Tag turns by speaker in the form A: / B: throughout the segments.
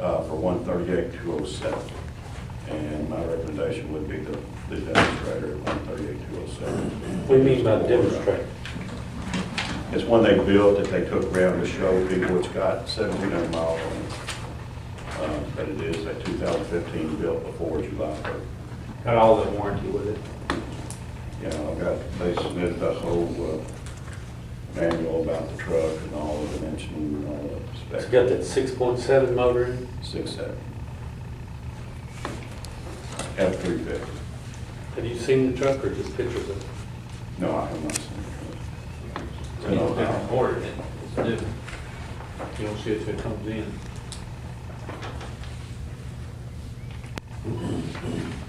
A: uh, for one thirty-eight, two oh seven. And my recommendation would be the, the demonstrator at one thirty-eight, two oh seven.
B: What do you mean by demonstrate?
A: It's one they built that they took around to show people it's got seventeen hundred miles on it. Uh, But it is a two thousand fifteen built before July first.
B: Got all the warranty with it.
A: You know, I've got, they submitted the whole uh, manual about the truck and all the dimensions and all the
B: It's
A: specs.
B: got that six point seven motor in it.
A: Six seven. F three fifty.
B: Have you seen the truck or just pictures of it?
A: No, I have not seen it.
C: It's different order, it's new.
B: You don't see it till it comes in.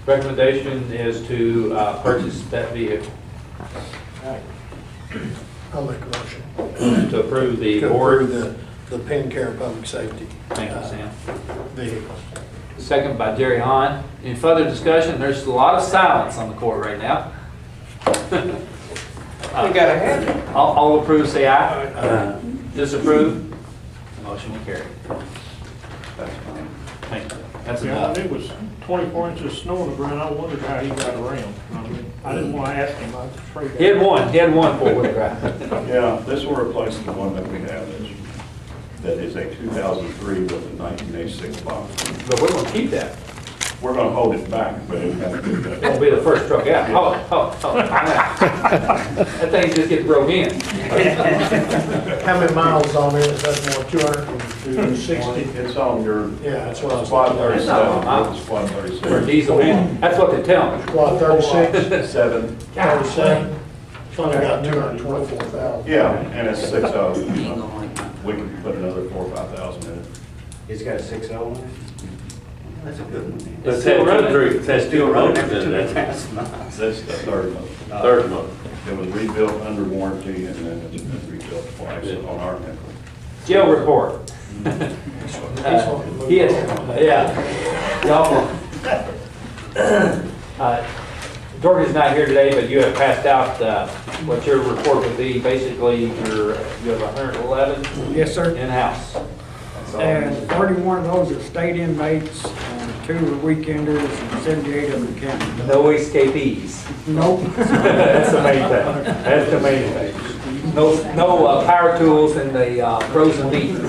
C: Recommendation is to uh, purchase that vehicle,
D: I'll make a motion.
C: to approve the
D: To approve
C: board.
D: the, the Penn Care Public Safety.
C: Thank you, Sam.
D: uh, Vehicle.
C: Second by Jerry Hahn. Any further discussion? There's a lot of silence on the court right now.
B: I got a hand.
C: Uh, All, all approve, say aye. Disapprove? Motion will carry.
A: That's fine.
C: Thank you. That's
E: Yeah,
C: enough.
E: it was 24 inches of snow on the ground, I wondered how he got around. I mean, I didn't want to ask him, I was afraid.
C: He had one, he had one four-wheel drive.
A: Yeah, this will replace the one that we have that's, that is a two thousand three with a nineteen eighty-six box.
C: But we're gonna keep that.
A: We're gonna hold it back, but it has to be
C: It'll be the first truck out. Oh, oh, oh. That thing just gets broke in.
D: How many miles on it? Is that more, two hundred and
A: Sixty,
D: sixty?
A: it's on your.
D: Yeah, that's what I was-
A: Squad
C: That's not
A: thirty-seven,
C: mine.
A: squad
C: For a
A: thirty-seven.
C: diesel, man. That's what they tell me.
D: What, thirty-six,
A: Seven,
D: thirty-seven? It's only got two hundred and twenty-four thousand.
A: yeah, and it's six oh, you
F: Ain't
A: know.
F: gonna like that.
A: we can put another four, or five thousand in it.
B: It's got a six oh in it?
F: That's a good one.
C: It's still running.
B: It has two motors in it,
F: That's nice.
A: That's the third one.
B: third motor.
A: It was rebuilt under warranty and then it's been rebuilt twice on our network.
C: Jail report. Uh, He had, yeah. Y'all, uh, Dorothy's not here today, but you have passed out uh, what your report would be. Basically, you're, you have 111
G: Yes, sir.
C: in-house. That's all.
G: And 31 of those are state inmates, and two are weekenders, and 78 of them county.
C: No escapees.
G: Nope.
B: That's the main thing. That's the main thing.
C: No, no uh, power tools in the uh, frozen meat.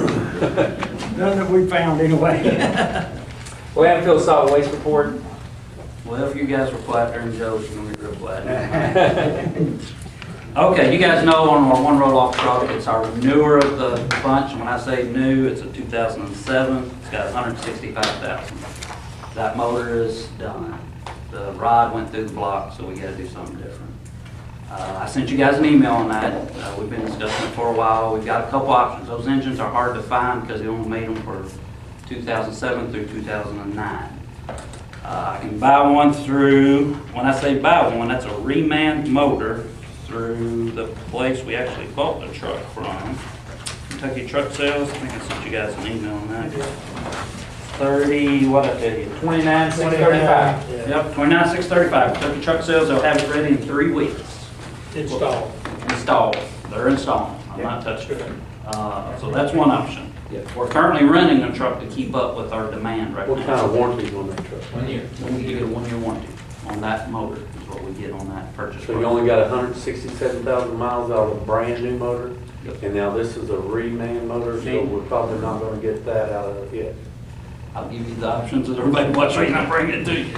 G: None that we found anyway.
C: Landfill solid waste report.
F: Well, if you guys were flat during Joe's, you're gonna be real flat. Okay, you guys know on our one roll-off truck, it's our newer of the bunch. When I say new, it's a 2007. It's got 165,000. That motor is done. The rod went through the block, so we gotta do something different. Uh, I sent you guys an email on that. Uh, We've been discussing it for a while. We've got a couple options. Those engines are hard to find because they only made them for 2007 through 2009. Uh, I can buy one through, when I say buy one, that's a reman motor through the place we actually bought the truck from. Kentucky Truck Sales, I think I sent you guys an email on that. Thirty, what I tell you,
C: 29, 635.
F: Yep, twenty-nine, six thirty-five, Kentucky Truck Sales, they'll have it ready in three weeks.
D: Installed.
F: Installed, they're installing, I'm not touching it. Uh, so that's one option. We're currently renting a truck to keep up with our demand right now.
B: What kind of warranties on that truck?
F: One year. You get a one-year warranty on that motor, is what we get on that purchase.
B: So you only got hundred and sixty-seven thousand miles out of a brand new motor?
F: Yep.
B: And now this is a reman motor, so we're probably not gonna get that out of it yet.
F: I'll give you the options that everybody watching, and I'll bring it to you.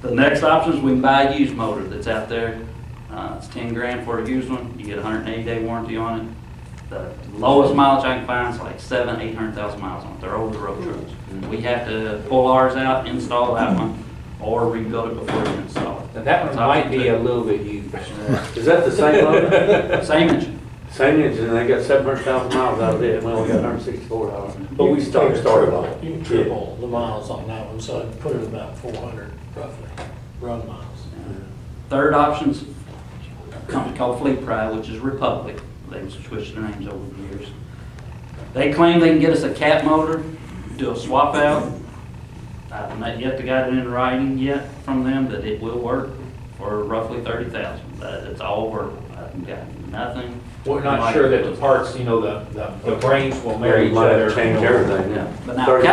F: The next option is we can buy a used motor that's out there. Uh, it's ten grand for a used one, you get a hundred and eighty day warranty on it. The lowest mileage I can find is like seven, eight hundred thousand miles on it, they're older road trucks. We have to pull ours out, install that one, or rebuild it before we install it.
C: Now, that one
F: That's option
C: might be a little bit used.
B: Is that the same motor?
F: two. Same engine.
B: Same engine, they got seven hundred thousand miles out of it, and we only got hundred and sixty-four dollars. But we started, started on it.
D: You can triple the miles on that one, so I'd put it about four hundred roughly, run miles.
F: Third option's a company called Fleet Pride, which is Republic. They've switched their names over the years. They claim they can get us a cat motor, do a swap out. I've not yet got it in writing yet from them that it will work for roughly thirty thousand. But it's all verbal. I haven't gotten nothing.
C: We're not sure that the parts, you know, the, the- the brains will marry each
B: Might have
C: other.
B: changed
C: you know.
B: everything.
F: Yeah, but now
B: Thirty